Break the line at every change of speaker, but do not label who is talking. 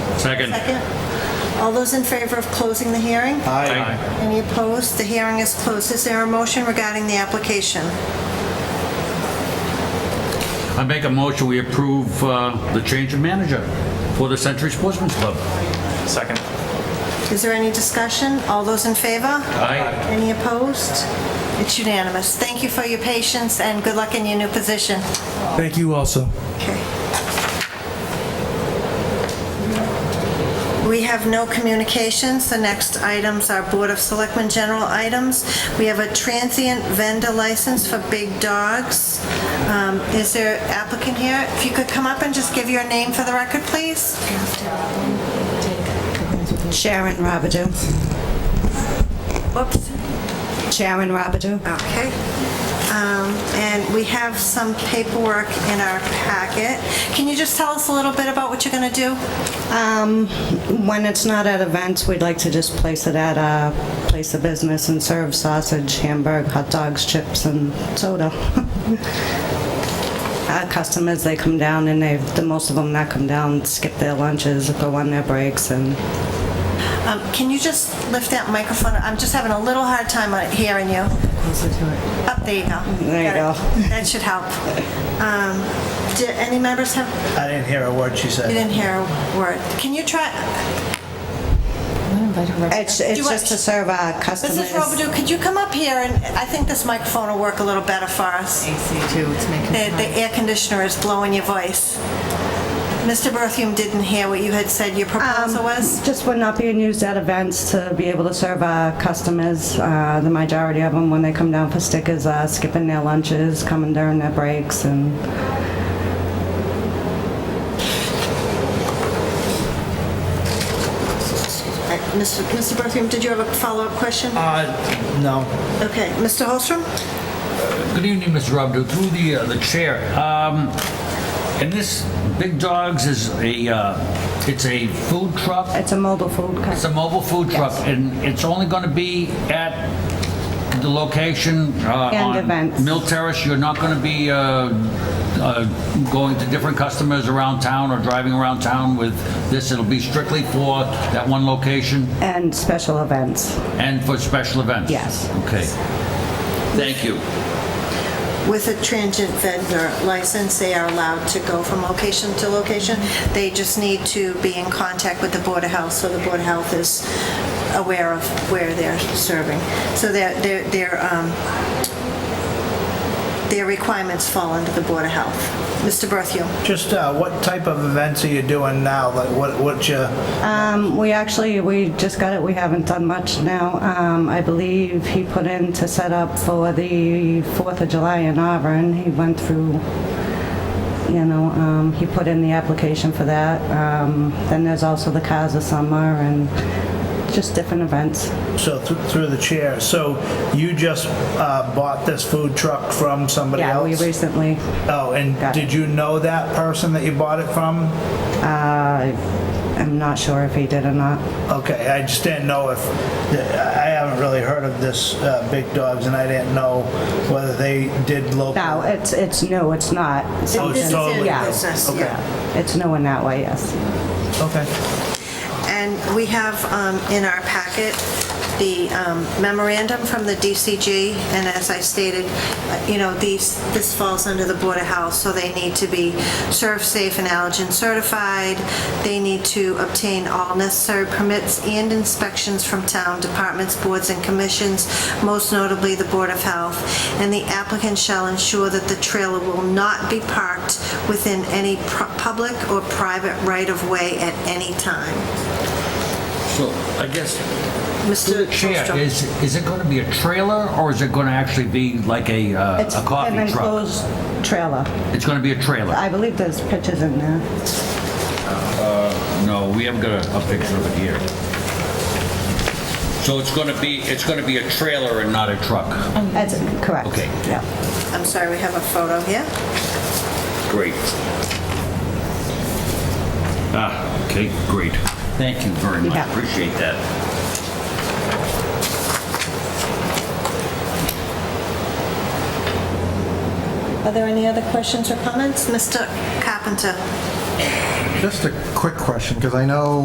Second.
Second. All those in favor of closing the hearing?
Aye.
Any opposed? The hearing is closed. Is there a motion regarding the application?
I make a motion, we approve uh, the change of manager for the Century Sportsman's Club.
Second.
Is there any discussion? All those in favor?
Aye.
Any opposed? It's unanimous. Thank you for your patience, and good luck in your new position.
Thank you also.
Okay. We have no communications. The next items are Board of Selectmen general items. We have a transient vendor license for big dogs. Um, Is there applicant here? If you could come up and just give your name for the record, please?
Sharon Robidoux.
Whoops.
Sharon Robidoux.
Okay. Um, And we have some paperwork in our packet. Can you just tell us a little bit about what you're going to do?
Um, when it's not at events, we'd like to just place it at a place of business and serve sausage, hamburg, hot dogs, chips, and soda. Our customers, they come down and they, the most of them that come down, skip their lunches, go on their breaks, and
Um, Can you just lift that microphone? I'm just having a little hard time uh, hearing you. Up, there you go.
There you
Got it. That should help. Um, Did any members have,
I didn't hear a word she
you
said.
didn't hear a word. Can you try,
it's, it's
you want-
just to serve our customers.
Mrs. Robidoux, could you come up here? And I think this microphone will work a little better for us.
AC too, it's making
The the air conditioner is blowing your voice. Mr. Berthium didn't hear what you had said your proposal was.
Just when not being used at events to be able to serve our customers, uh, the majority of them, when they come down for stickers, are skipping their lunches, coming during their breaks, and
Uh, Mr. Mr. Berthium, did you have a follow-up question?
Um,
Uh, no.
Okay, Mr. Holstrom?
Good evening, Mr. Robidoux, through the, uh, the chair. Um, And this Big Dogs is a, uh, it's a food truck?
it's a mobile food
It's a
customer.
mobile food truck, and it's only going to be at the location uh,
And
on
events.
Mill Terrace? You're not going to be uh, uh, going to different customers around town or driving around town with this? It'll be strictly for that one location
And special events.
and for special events?
Yes.
Okay. Thank you.
With a transient vendor license, they are allowed to go from location to location. They just need to be in contact with the Board of Health, so the Board of Health is aware of where they're serving. So their, their, their um, their requirements fall under the Board of Health. Mr. Berthew?
Just uh, what type of events are you doing now? Like what, what you,
Um, we actually, we just got it, we haven't done much now. Um, I believe he put in to set up for the 4th of July in Auburn. He went through, you know, um, he put in the application for that. Um, then there's also the Cars of Summer and just different events.
so thr- through the chair, so you just uh, bought this food truck from somebody
Yeah, we
else?
recently,
Oh, and
Got it.
did you know that person that you bought it from?
uh, I'm not sure if he did or not.
Okay, I just didn't know if, I haven't really heard of this uh, Big Dogs and I didn't know whether they did local.
No, it's, it's, no, it's not.
Oh, it's
Business
totally
and
new.
business,
Okay.
yeah.
It's no in that way, yes.
Okay.
And we have um, in our packet the um, memorandum from the DCG, and as I stated, uh, you know, these, this falls under the Board of Health, so they need to be serve safe and allergen certified. They need to obtain all necessary permits and inspections from town departments, boards, and commissions, most notably the Board of Health, and the applicant shall ensure that the trailer will not be parked within any pr- public or private right-of-way at any time.
So I guess
Mr.
Chair,
Holstrom.
is, is it going to be a trailer or is it going to actually be like a,
It's
uh, a
an
coffee truck?
enclosed trailer.
It's going to be a trailer?
I believe there's pictures in there.
No, we haven't got a, a picture of it here. So it's gonna be, it's gonna be a trailer and not a truck?
That's correct.
Okay.
Yeah.
I'm sorry, we have a photo here.
Great. Ah, okay, great. Thank you very much,
Yeah.
appreciate that.
Are there any other questions or comments? Mr. Carpenter?
Just a quick question, because I know